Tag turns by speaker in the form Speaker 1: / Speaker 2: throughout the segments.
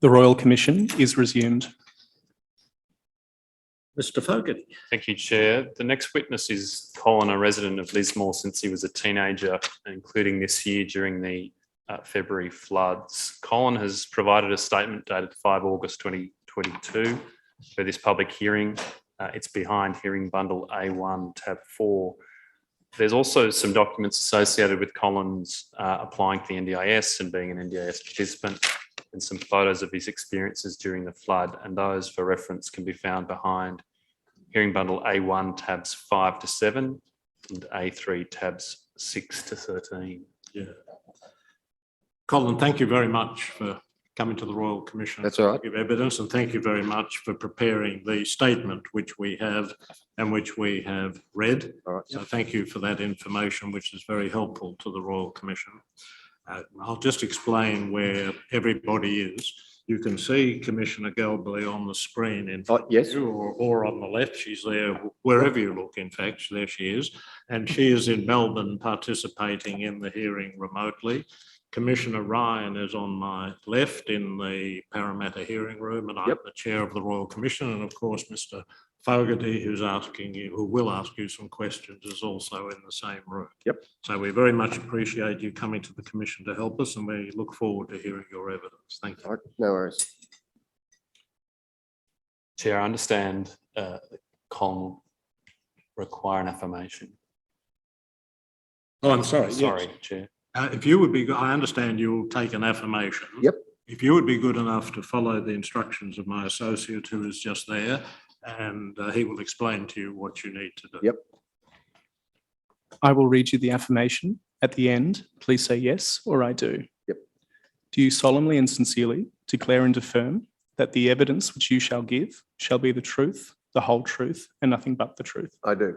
Speaker 1: The Royal Commission is resumed.
Speaker 2: Mr Fogarty.
Speaker 3: Thank you, Chair. The next witness is Colin, a resident of Lismore since he was a teenager, including this year during the uh, February floods. Colin has provided a statement dated 5 August 2022 for this public hearing. Uh, It's behind hearing bundle A1, tab 4. There's also some documents associated with Colin's uh, applying for the NDIS and being an NDIS participant and some photos of his experiences during the flood, and those for reference can be found behind Hearing bundle A1 tabs five to seven and A3 tabs six to 13.
Speaker 2: Colin, thank you very much for coming to the Royal Commission.
Speaker 4: That's all right.
Speaker 2: to Give evidence and thank you very much for preparing the statement which we have and which we have read.
Speaker 4: All right.
Speaker 2: So thank you for that information, which is very helpful to the Royal Commission. Uh, I'll just explain where everybody is. You can see Commissioner Galbally on the screen in
Speaker 4: Oh, yes,
Speaker 2: you or, or on the left, she's there, wherever you look, in fact, there she is. And she is in Melbourne participating in the hearing remotely. Commissioner Ryan is on my left in the Parramatta hearing room and I'm
Speaker 4: Yep.
Speaker 2: the chair of the Royal Commission. And of course, Mr Fogarty, who's asking you, who will ask you some questions, is also in the same room.
Speaker 4: Yep.
Speaker 2: So we very much appreciate you coming to the commission to help us and we look forward to hearing your evidence. Thank you.
Speaker 4: All right. no worries.
Speaker 3: Chair, I understand uh, Colin will require an affirmation.
Speaker 2: Oh, I'm sorry.
Speaker 3: Sorry, Chair.
Speaker 2: Uh, if you would be, go- I understand you'll take an affirmation.
Speaker 4: Yep.
Speaker 2: If you would be good enough to follow the instructions of my associate who is just there, and uh, he will explain to you what you need to do.
Speaker 4: Yep.
Speaker 1: I will read you the affirmation. At the end, please say yes or I do.
Speaker 4: Yep.
Speaker 1: Do you solemnly and sincerely declare and affirm that the evidence which you shall give shall be the truth, the whole truth, and nothing but the truth?
Speaker 4: I do.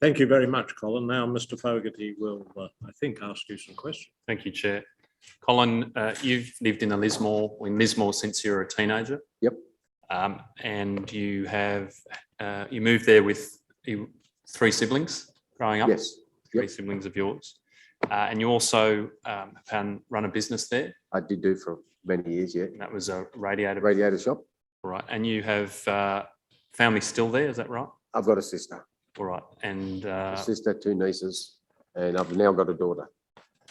Speaker 2: Thank you very much, Colin. Now, Mr Fogarty will, uh, I think, ask you some questions.
Speaker 3: Thank you, Chair. Colin, uh, you've lived in a Lismore, in Lismore since you were a teenager.
Speaker 4: Yep.
Speaker 3: Um, And you have, uh, you moved there with you- three siblings growing up?
Speaker 4: Yes,
Speaker 3: Three siblings of yours. Uh, And you also um, have run- run a business there,
Speaker 4: I did do for many years, yeah.
Speaker 3: and that was a radiator
Speaker 4: Radiator shop.
Speaker 3: All right, and you have uh, family still there, is that right?
Speaker 4: I've got a sister,
Speaker 3: All right, and
Speaker 4: a
Speaker 3: uh,
Speaker 4: sister, two nieces, and I've now got a daughter.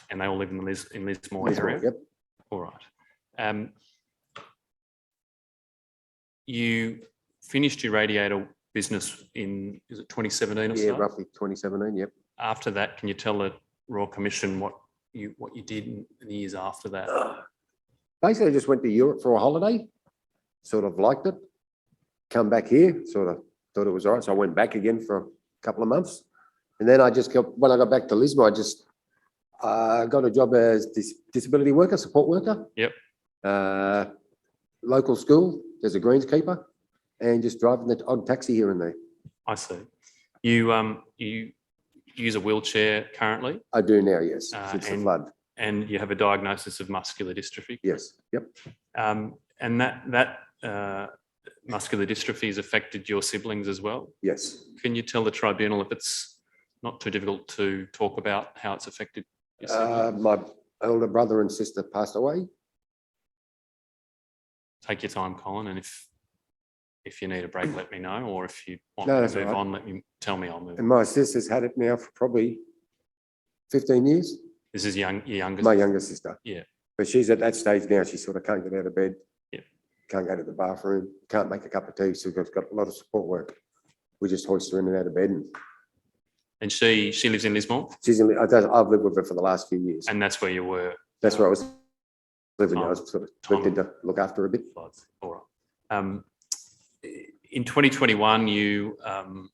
Speaker 3: and they all live in the Lis- in Lismore
Speaker 4: Lismore,
Speaker 3: area.
Speaker 4: Yep,
Speaker 3: All right. Um, you finished your radiator business in is it 2017 or
Speaker 4: yeah,
Speaker 3: so?
Speaker 4: roughly 2017, yep.
Speaker 3: After that, can you tell the Royal Commission what you what you did in the years after that?
Speaker 4: Uh. Basically, I just went to Europe for a holiday, sort of liked it. Come back here, sort of thought it was all right, so I went back again for a couple of months. And then I just kept, when I got back to Lismore, I just uh, got a job as dis- disability worker, support worker.
Speaker 3: Yep.
Speaker 4: Uh, Local school, there's a greenskeeper, and just driving the odd taxi here and there.
Speaker 3: I see. You um you use a wheelchair currently,
Speaker 4: I do now, yes,
Speaker 3: Uh,
Speaker 4: since the
Speaker 3: and-
Speaker 4: flood,
Speaker 3: and you have a diagnosis of muscular dystrophy.
Speaker 4: yes, yep,
Speaker 3: Um, and that that uh, muscular dystrophy has affected your siblings as well.
Speaker 4: yes.
Speaker 3: Can you tell the tribunal if it's not too difficult to talk about how it's affected? your siblings?
Speaker 4: Uh, My older brother and sister passed away,
Speaker 3: Take your time, Colin, and if if you need a break, let me know, or if you want
Speaker 4: No,
Speaker 3: me
Speaker 4: that's
Speaker 3: to
Speaker 4: all
Speaker 3: move
Speaker 4: right.
Speaker 3: on, let me tell me. I'll move.
Speaker 4: and
Speaker 3: on.
Speaker 4: my sister's had it now for probably 15 years.
Speaker 3: This is young, your youngest.
Speaker 4: My younger sister.
Speaker 3: Yeah.
Speaker 4: But she's at that stage now, she sort of can't get out of bed.
Speaker 3: Yeah.
Speaker 4: Can't go to the bathroom, can't make a cup of tea, so we've got a lot of support work. We just hoist her in and out of bed and
Speaker 3: And she she lives in Lismore,
Speaker 4: she's, in- I don't- I've lived with her for the last few years.
Speaker 3: and that's where you were.
Speaker 4: That's where I was living, I
Speaker 3: Tom-
Speaker 4: was sort of
Speaker 3: Tom-
Speaker 4: lived in to look after her a bit.
Speaker 3: floods. All right. Um, in 2021, you um,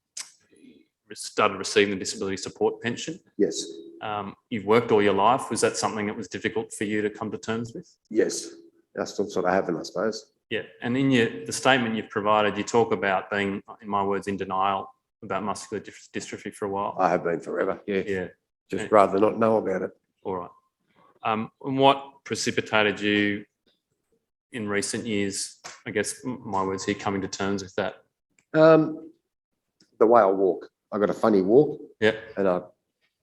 Speaker 3: started receiving the disability support pension.
Speaker 4: Yes,
Speaker 3: Um, you've worked all your life. Was that something that was difficult for you to come to terms with?
Speaker 4: yes, I still sort of haven't, I suppose.
Speaker 3: Yeah, and in your the statement you've provided, you talk about being, in my words, in denial about muscular dys- dystrophy for a while.
Speaker 4: I have been forever, yeah,
Speaker 3: yeah,
Speaker 4: just rather not know about it.
Speaker 3: all right. Um, and what precipitated you in recent years? I guess m- my words here, coming to terms with that.
Speaker 4: Um, the way I walk, I've got a funny walk
Speaker 3: Yeah,
Speaker 4: and I